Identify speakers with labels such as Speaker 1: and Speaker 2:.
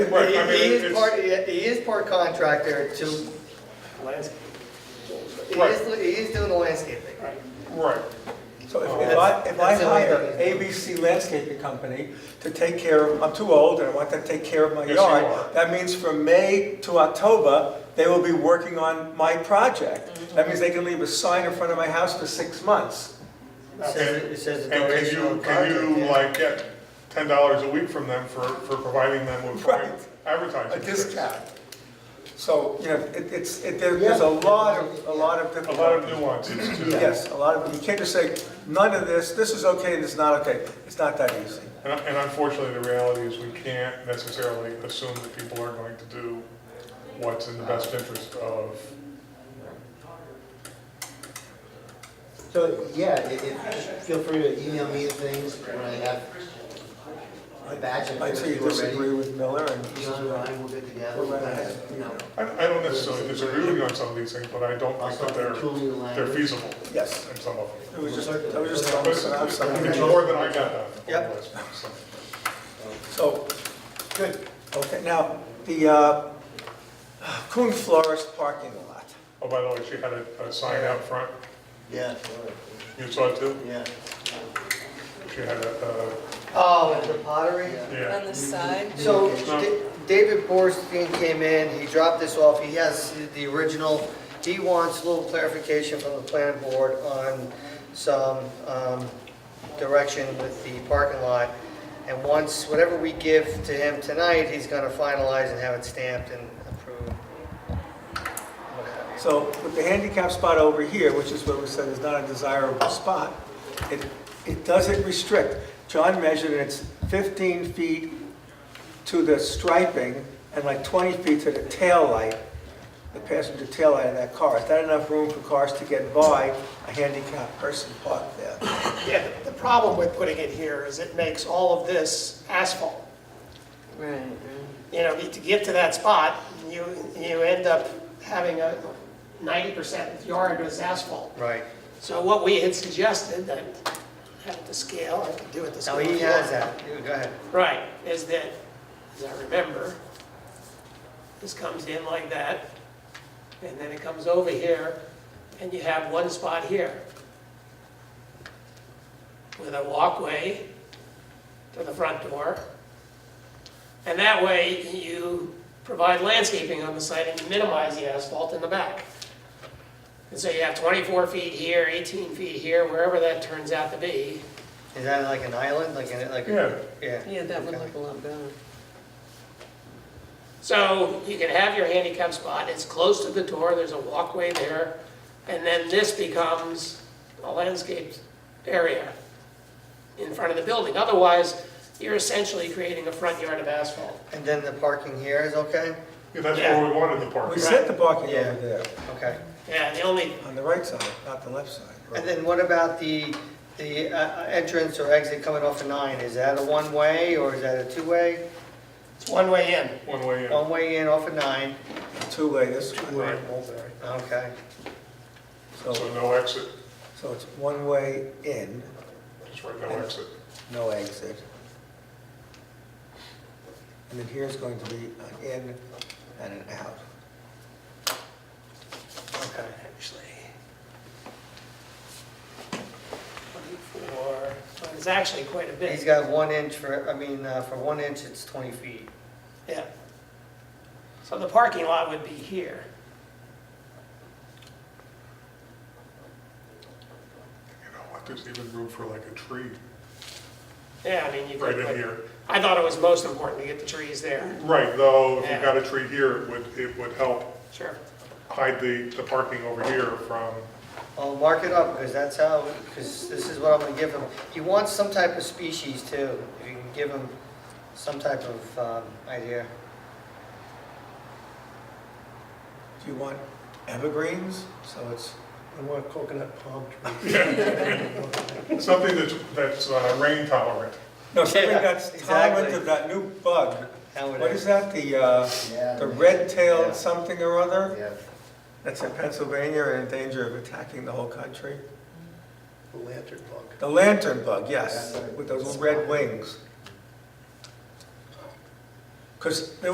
Speaker 1: Right,
Speaker 2: He
Speaker 1: I mean,
Speaker 2: he is
Speaker 1: it's-
Speaker 2: part, he he is part contractor to, he is,
Speaker 1: Right.
Speaker 2: he is doing the landscaping.
Speaker 1: Right,
Speaker 3: So if
Speaker 1: Oh,
Speaker 3: if I, if I
Speaker 2: That's- that's the way
Speaker 3: hire
Speaker 2: it
Speaker 3: ABC Landscaping Company to take care of, I'm too old and I want them to take care of my
Speaker 1: Yes, you are.
Speaker 3: yard, that means from May to October, they will be working on my project.
Speaker 1: Mm-hmm.
Speaker 3: That means they can leave a sign in front of my house for six months.
Speaker 2: It says, it says
Speaker 1: and
Speaker 2: the
Speaker 1: can
Speaker 2: duration of
Speaker 1: you,
Speaker 2: the
Speaker 1: can
Speaker 2: contract.
Speaker 1: you
Speaker 2: yeah.
Speaker 1: like get ten dollars a week from them for, for providing them with
Speaker 3: Right.
Speaker 1: advertising?
Speaker 3: a discount.
Speaker 1: space?
Speaker 3: So, you know, it- it's, it- there- there's a lot of, a lot of
Speaker 1: A lot of
Speaker 3: difficulties.
Speaker 1: nuances to it.
Speaker 3: Yes, a lot of, you can't just say, none of this, this is okay, this is not okay. It's not that easy.
Speaker 1: And and unfortunately, the reality is we can't necessarily assume that people are going to do what's in the best interest of,
Speaker 4: So, yeah, it, it, feel free to email me things when I have my badge and
Speaker 3: I see you
Speaker 4: everything
Speaker 3: disagree
Speaker 4: already.
Speaker 3: with Miller and.
Speaker 4: Dion and I will get together,
Speaker 3: Well,
Speaker 4: and,
Speaker 3: I-
Speaker 4: you know,
Speaker 1: I I don't necessarily disagree with you on some of these things, but I don't
Speaker 4: I'll
Speaker 1: think that
Speaker 4: start
Speaker 1: they're,
Speaker 4: tuning the
Speaker 1: they're
Speaker 4: language.
Speaker 1: feasible
Speaker 3: Yes.
Speaker 1: in some of them.
Speaker 3: It was just, I was just
Speaker 1: But
Speaker 3: throwing out
Speaker 1: it's it's
Speaker 3: something.
Speaker 1: more than I got done. on the
Speaker 2: Yep.
Speaker 1: list,
Speaker 3: So,
Speaker 1: so.
Speaker 3: good, okay, now, the uh, Coon Florist parking lot.
Speaker 1: Oh, by the way, she had a, a sign out front,
Speaker 4: Yeah,
Speaker 1: you saw it too?
Speaker 4: yeah.
Speaker 1: She had a, uh,
Speaker 2: Oh, and the pottery?
Speaker 1: yeah,
Speaker 5: on the side.
Speaker 2: So
Speaker 1: No.
Speaker 2: Da- David Borstein came in, he dropped this off, he has the original. He wants a little clarification from the planning board on some um, direction with the parking lot. And once, whatever we give to him tonight, he's going to finalize and have it stamped and approved. What have you.
Speaker 3: So with the handicap spot over here, which is what we said is not a desirable spot, it, it doesn't restrict. John measured, and it's 15 feet to the striping and like 20 feet to the tail light, the passenger tail light of that car. Is that enough room for cars to get by a handicapped person parked there?
Speaker 6: Yeah, the problem with putting it here is it makes all of this asphalt.
Speaker 5: Right.
Speaker 6: You know, to get to that spot, you, you end up having a ninety percent of the yard is asphalt.
Speaker 2: Right.
Speaker 6: So what we had suggested, that I have to scale, I have to do it this
Speaker 2: Now,
Speaker 6: way.
Speaker 2: he has that. You Go ahead.
Speaker 6: Right, is that, as I remember, this comes in like that, and then it comes over here, and you have one spot here. With a walkway to the front door. And that way, you provide landscaping on the site and you minimize the asphalt in the back. And so you have 24 feet here, 18 feet here, wherever that turns out to be.
Speaker 2: Is that like an island, like, an- like?
Speaker 1: yeah.
Speaker 2: Yeah.
Speaker 5: Yeah, that would
Speaker 2: Okay.
Speaker 5: look a lot better.
Speaker 6: So you can have your handicap spot, it's close to the door, there's a walkway there, and then this becomes a landscaped area in front of the building. Otherwise, you're essentially creating a front yard of asphalt.
Speaker 2: And then the parking here is okay?
Speaker 1: Yeah, that's where we wanted the park.
Speaker 3: We set the parking over there,
Speaker 2: Okay.
Speaker 6: Yeah, the only,
Speaker 3: on the right side, not the left side.
Speaker 2: And then what about the, the uh, entrance or exit coming off of nine? Is that a one-way or is that a two-way?
Speaker 6: it's one way in.
Speaker 1: One way in.
Speaker 2: One-way in off of nine,
Speaker 3: Two-way this way,
Speaker 1: Right.
Speaker 2: okay.
Speaker 3: so,
Speaker 1: So no exit,
Speaker 3: so it's one-way in,
Speaker 1: just right, no exit.
Speaker 3: no exit. And then here's going to be an in and an out.
Speaker 6: Okay, actually. Twenty-four, but it's actually quite a
Speaker 2: He's
Speaker 6: bit,
Speaker 2: got one inch for, I mean, uh, for one inch, it's 20 feet.
Speaker 6: yeah. So the parking lot would be here.
Speaker 1: You know what, there's even room for like a tree
Speaker 6: Yeah, I mean, you
Speaker 1: right
Speaker 6: could.
Speaker 1: in
Speaker 6: put-
Speaker 1: here.
Speaker 6: I thought it was most important to get the trees there,
Speaker 1: Right, though, if you
Speaker 6: Yeah.
Speaker 1: got a tree here, it would, it would help
Speaker 6: sure.
Speaker 1: hide the, the parking over here from,
Speaker 2: I'll mark it up because that's how, because this is what I'm gonna give him. He wants some type of species too, if you can give him some type of um, idea.
Speaker 3: Do you want evergreens? So it's,
Speaker 7: I want coconut palm trees.
Speaker 1: something that's, that's uh, rain tolerant.
Speaker 3: no, something
Speaker 2: Yeah,
Speaker 3: that's tolerant
Speaker 2: exactly.
Speaker 3: of that new bug.
Speaker 2: How would
Speaker 3: What is
Speaker 2: I?
Speaker 3: that, the, uh,
Speaker 4: Yeah.
Speaker 3: the red-tailed
Speaker 4: Yeah.
Speaker 3: something or other?
Speaker 4: Yeah,
Speaker 3: That's in Pennsylvania and in danger of attacking the whole country?
Speaker 7: The lantern bug.
Speaker 3: The lantern bug, yes,
Speaker 4: That's right.
Speaker 3: with those red wings. Because there